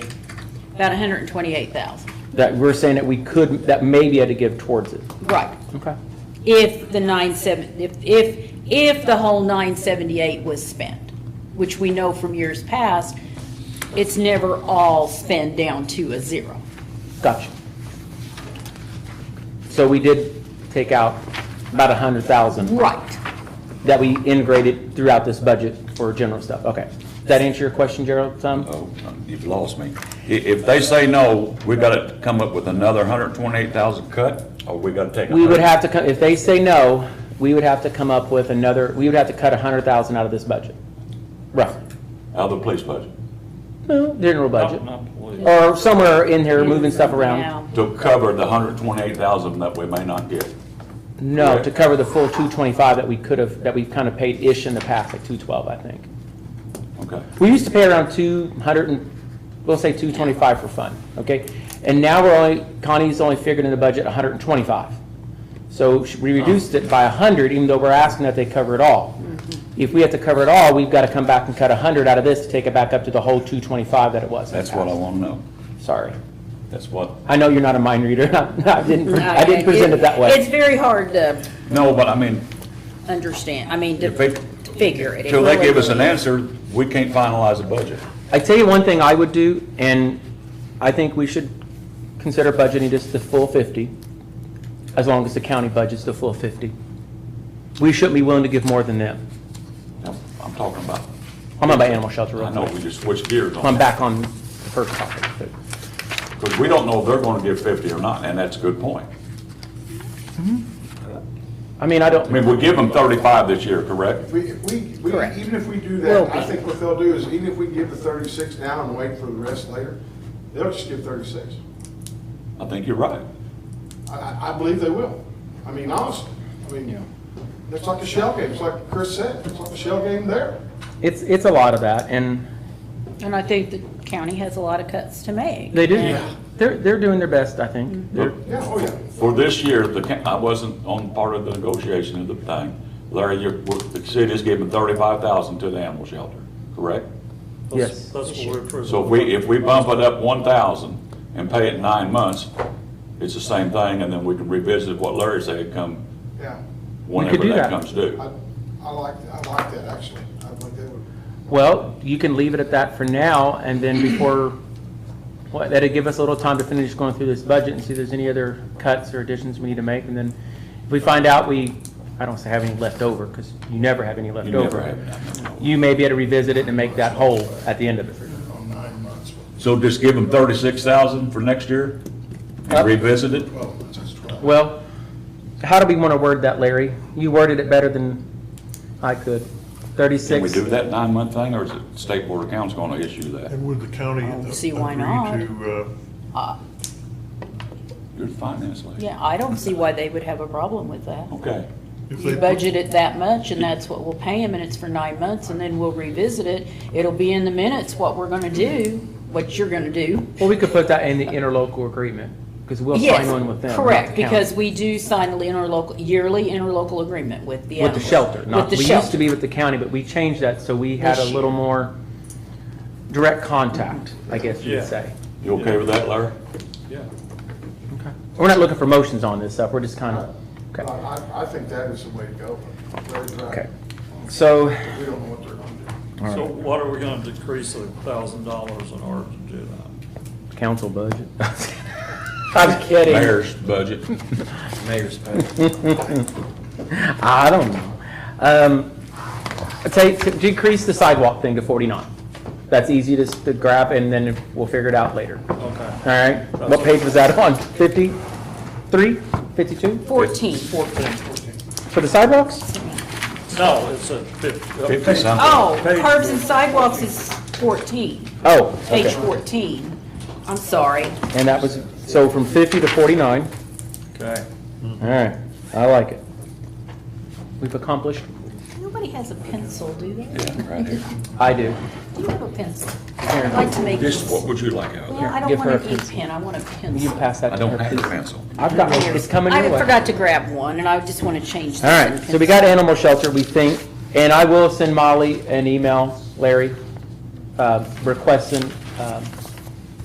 about hundred and twenty-eight thousand. That, we're saying that we could, that maybe had to give towards it. Right. Okay. If the nine seven, if, if, if the whole nine seventy-eight was spent, which we know from years past, it's never all spent down to a zero. Gotcha. So we did take out about a hundred thousand Right. that we integrated throughout this budget for general stuff. Okay. Does that answer your question, Gerald, some? Oh, you've lost me. I- If they say no, we gotta come up with another hundred and twenty-eight thousand cut, or we gotta take a We would hundred- have to, co- if they say no, we would have to come up with another, we would have to cut a hundred thousand out of this budget. Roughly. Out of the police budget, No, general budget. Not- not police. Or somewhere in here, moving stuff around. Now, to cover the hundred and twenty-eight thousand that we may not get. No, to cover the full two twenty-five that we could have, that we've kind of paid-ish in the past, like two twelve, I think. Okay. We used to pay around two hundred and, we'll say two twenty-five for fun, okay? And now we're only, Connie's only figured in the budget hundred and twenty-five. So sh- we reduced it by hundred, even though we're asking that they cover it all. If we have to cover it all, we've got to come back and cut hundred out of this to take it back up to the whole two twenty-five that it was. in the That's what I past. wanna know. Sorry. That's what, I know you're not a mind reader. I didn't, I didn't present it that It's way. very hard to no, but I mean, understand, I mean, to If they- to figure it. It till they really- give us an answer, we can't finalize a budget. I tell you one thing I would do, and I think we should consider budgeting just the full fifty, as long as the county budget's the full fifty. We shouldn't be willing to give more than them. I'm I'm talking about, I'm not about animal shelter real I know quick. we just switched gears on I'm that, back on the first topic. but- because we don't know if they're gonna give fifty or not, and that's a good point. I mean, I don't. I mean, we give them thirty-five this year, correct? We, we, we, Correct. even if we do Will that, be. I think what they'll do is, even if we give the thirty-six now and wait for the rest later, they'll just give thirty-six. I think you're right. I, I, I believe they will. I mean, honestly, I mean, it's like a shell game, it's like Chris said, it's like a shell game there. It's, it's a lot of that, and And I think the county has a lot of cuts to make. they do, Yeah. they're, they're doing their best, I think. They're- Yeah, oh yeah. For this year, the, ca- I wasn't on part of the negotiation of the thing. Larry, you're, we're- the city's giving thirty-five thousand to the animal shelter, correct? Yes. That's that's what we're approving. So if we, if we bump it up one thousand and pay it nine months, it's the same thing, and then we can revisit what Larry said come Yeah, whenever do that. that comes due. I, I like, I like that, actually. I think they would. Well, you can leave it at that for now, and then before, what, that'd give us a little time to finish going through this budget and see if there's any other cuts or additions we need to make, and then if we find out we, I don't say have any left over, because you never have any left You over. never have none. You may be able to revisit it and make that whole at the end of it. On nine months, So just give them thirty-six thousand for next year Yep. and revisit it? twelve months, that's twelve. Well, how do we want to word that, Larry? You worded it better than I could. Can we Thirty-six. do that nine-month thing, or is it State Board of Accounts gonna issue that? And would the county uh, I don't Oh, see agree why not. to, uh, You're the finance lady. Uh, Yeah, I don't see why they would have a problem with that. Okay. uh, if You they, budget it that much, and that's what we'll pay them, and it's for nine months, and then we'll revisit it. It'll be in the minutes what we're gonna do, what you're gonna do. Well, we could put that in the interlocal agreement, because we'll sign Yes, one with them. not the correct, county. because we do sign the interlocal, yearly interlocal agreement with the. With the animals. shelter, not, With we the used to be shelter. with the county, but we changed that, so we had a This little year. more direct contact, I guess you'd Yeah. say. You okay with that, Larry? Yeah. We're not looking for motions on this stuff, we're just kind of, I, okay. I, I think that is the way to go. Larry's right. Okay. So, We don't know what they're gonna do. So what are we gonna decrease a thousand dollars in order to do that? council budget. I'm kidding. Mayor's budget. Mayor's budget. I don't know. Um, I'd say to decrease the sidewalk thing to 49. That's easy to s- to grab, and then we'll figure it out later. All Okay. right? What page was that on? 53, 52? Fourteen. Fourteen. For the sidewalks? No, it's a fifty. Fifty something. Oh, Page- curbs and sidewalks is fourteen, Oh, page okay. fourteen. I'm sorry. And that was, so from 50 to 49. Okay. All right, I like it. We've accomplished? Nobody has a pencil, do they? Yeah, right here. I do. Do you have a pencil? I'd like to make Just this. what would you like out of Well, there? I don't give her want a an ink pencil. pen, I want a Will you pencil. pass that I to don't her, have a please? pencil. I've got one, it's coming your I way. forgot to grab one, and I just want to change. this All to a right, so we pencil. got animal shelter, we think, and I will send Molly an email, Larry, uh, requesting um,